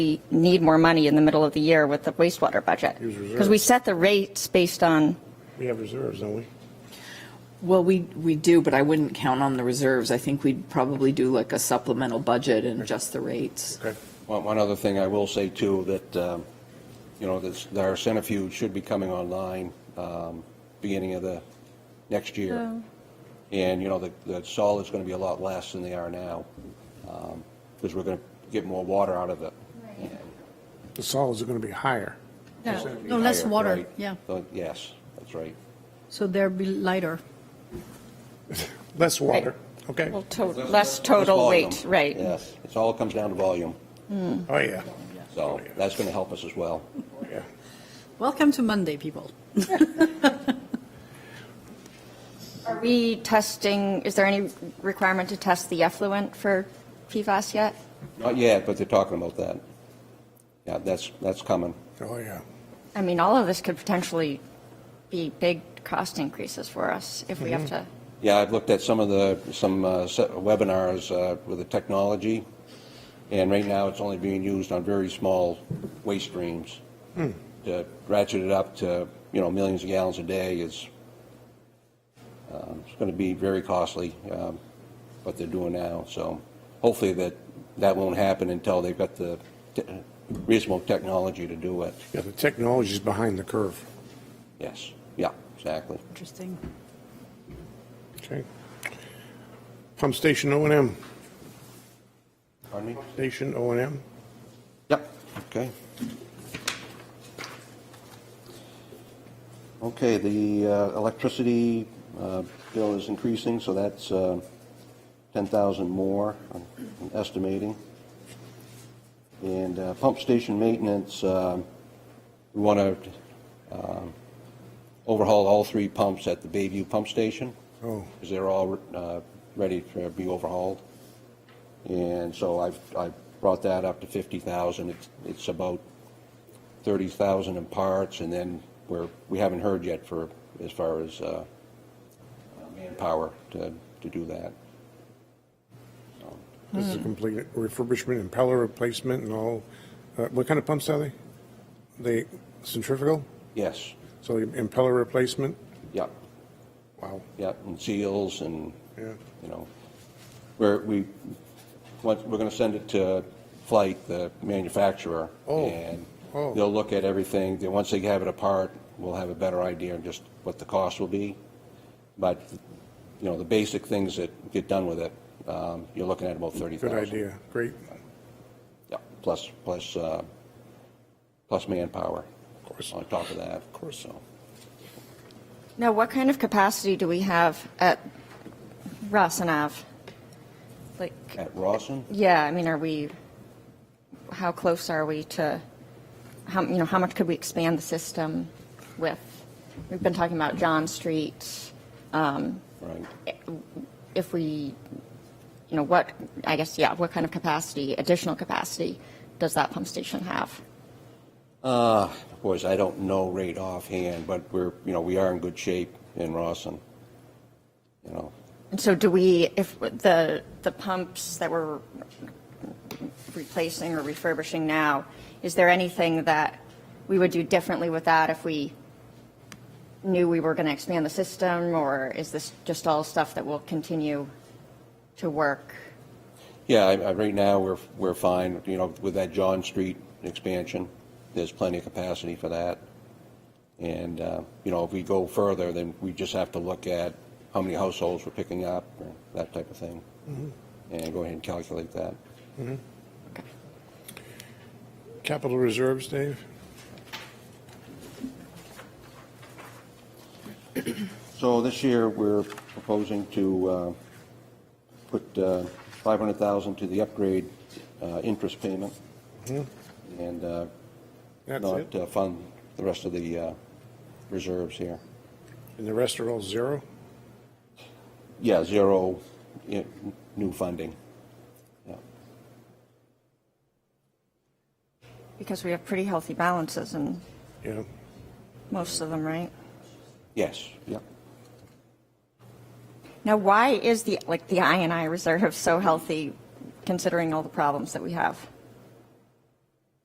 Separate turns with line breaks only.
we need more money in the middle of the year with the wastewater budget.
Use reserves.
Because we set the rates based on,
We have reserves, don't we?
Well, we, we do, but I wouldn't count on the reserves. I think we'd probably do like a supplemental budget and adjust the rates.
Okay.
One one other thing I will say too, that, um, you know, this- that our centrifuge should be coming online um, beginning of the next year. And, you know, the the solid's going to be a lot less than they are now because we're going to get more water out of it.
The solids are going to be higher.
Oh,
No, no, less
Higher,
water,
right?
yeah.
So, Yes, that's right.
So they'll be lighter.
Less water, okay?
well, to- less total
volume.
weight, right?
Yes, it's all comes down to volume.
Oh, yeah,
So that's going to help us as well.
yeah.
Welcome to Monday, people.
Are we testing, is there any requirement to test the effluent for PFAS yet?
Not yet, but they're talking about that. Yeah, that's, that's coming.
Oh, yeah.
I mean, all of this could potentially be big cost increases for us if we have to.
Yeah, I've looked at some of the, some uh, se- webinars uh, with the technology, and right now it's only being used on very small waste streams. To ratchet it up to, you know, millions of gallons a day is, um, it's going to be very costly, um, what they're doing now. So hopefully that, that won't happen until they've got the te- reasonable technology to do it.
Yeah, the technology's behind the curve,
Yes, yeah, exactly.
Interesting.
okay? Pump station O and M,
Pardon me?
station O and M,
Yep, okay. Okay, the uh, electricity uh, bill is increasing, so that's uh, 10,000 more, I'm I'm estimating. And uh, pump station maintenance, um, we want to overhaul all three pumps at the Bayview Pump Station.
Oh.
Because they're all uh, ready to be overhauled. And so I've, I brought that up to 50,000. It's, it's about 30,000 in parts, and then we're, we haven't heard yet for, as far as uh, manpower to, to do that.
this is a complete refurbishment, impeller replacement and all. Uh, What kind of pumps are they? They centrifugal,
Yes,
so the impeller replacement,
yep,
wow,
yep, and seals and,
yeah.
you know, we're, we, once, we're gonna send it to Flight, the manufacturer.
Oh,
And
oh.
they'll look at everything, then once they have it apart, we'll have a better idea of just what the cost will be. But, you know, the basic things that get done with it, um, you're looking at about thirty
Good
thousand.
idea, great,
Yeah, plus, plus, uh, plus manpower. Of
course.
On top of that, of course, so.
Now, what kind of capacity do we have at Rossinav? Like,
At Rawson?
yeah, I mean, are we, how close are we to, how, you know, how much could we expand the system with? We've been talking about John Street,
Right.
if we, you know, what, I guess, yeah, what kind of capacity, additional capacity does that pump station have?
Of course, I don't know right offhand, but we're, you know, we are in good shape in Rawson. You know,
And so do we, if the, the pumps that we're replacing or refurbishing now, is there anything that we would do differently with that if we knew we were going to expand the system? Or is this just all stuff that will continue to work?
yeah, I, I, right now, we're, we're fine, you know, with that John Street expansion, there's plenty of capacity for that. And, uh, you know, if we go further, then we just have to look at how many households we're picking up, or that type of thing. And go ahead and calculate that.
Capital reserves, Dave?
So this year, we're proposing to uh, put uh, 500,000 to the upgrade uh, interest payment and uh,
Mm-hmm. That's
not
it?
uh, fund the rest of the uh, reserves here.
And the rest are all zero?
Yeah, zero i- new funding. Yeah.
Because we have pretty healthy balances in
Yeah,
most of them, right?
Yes, yeah.
Now, why is the, like, the I and I reserve so healthy considering all the problems that we have?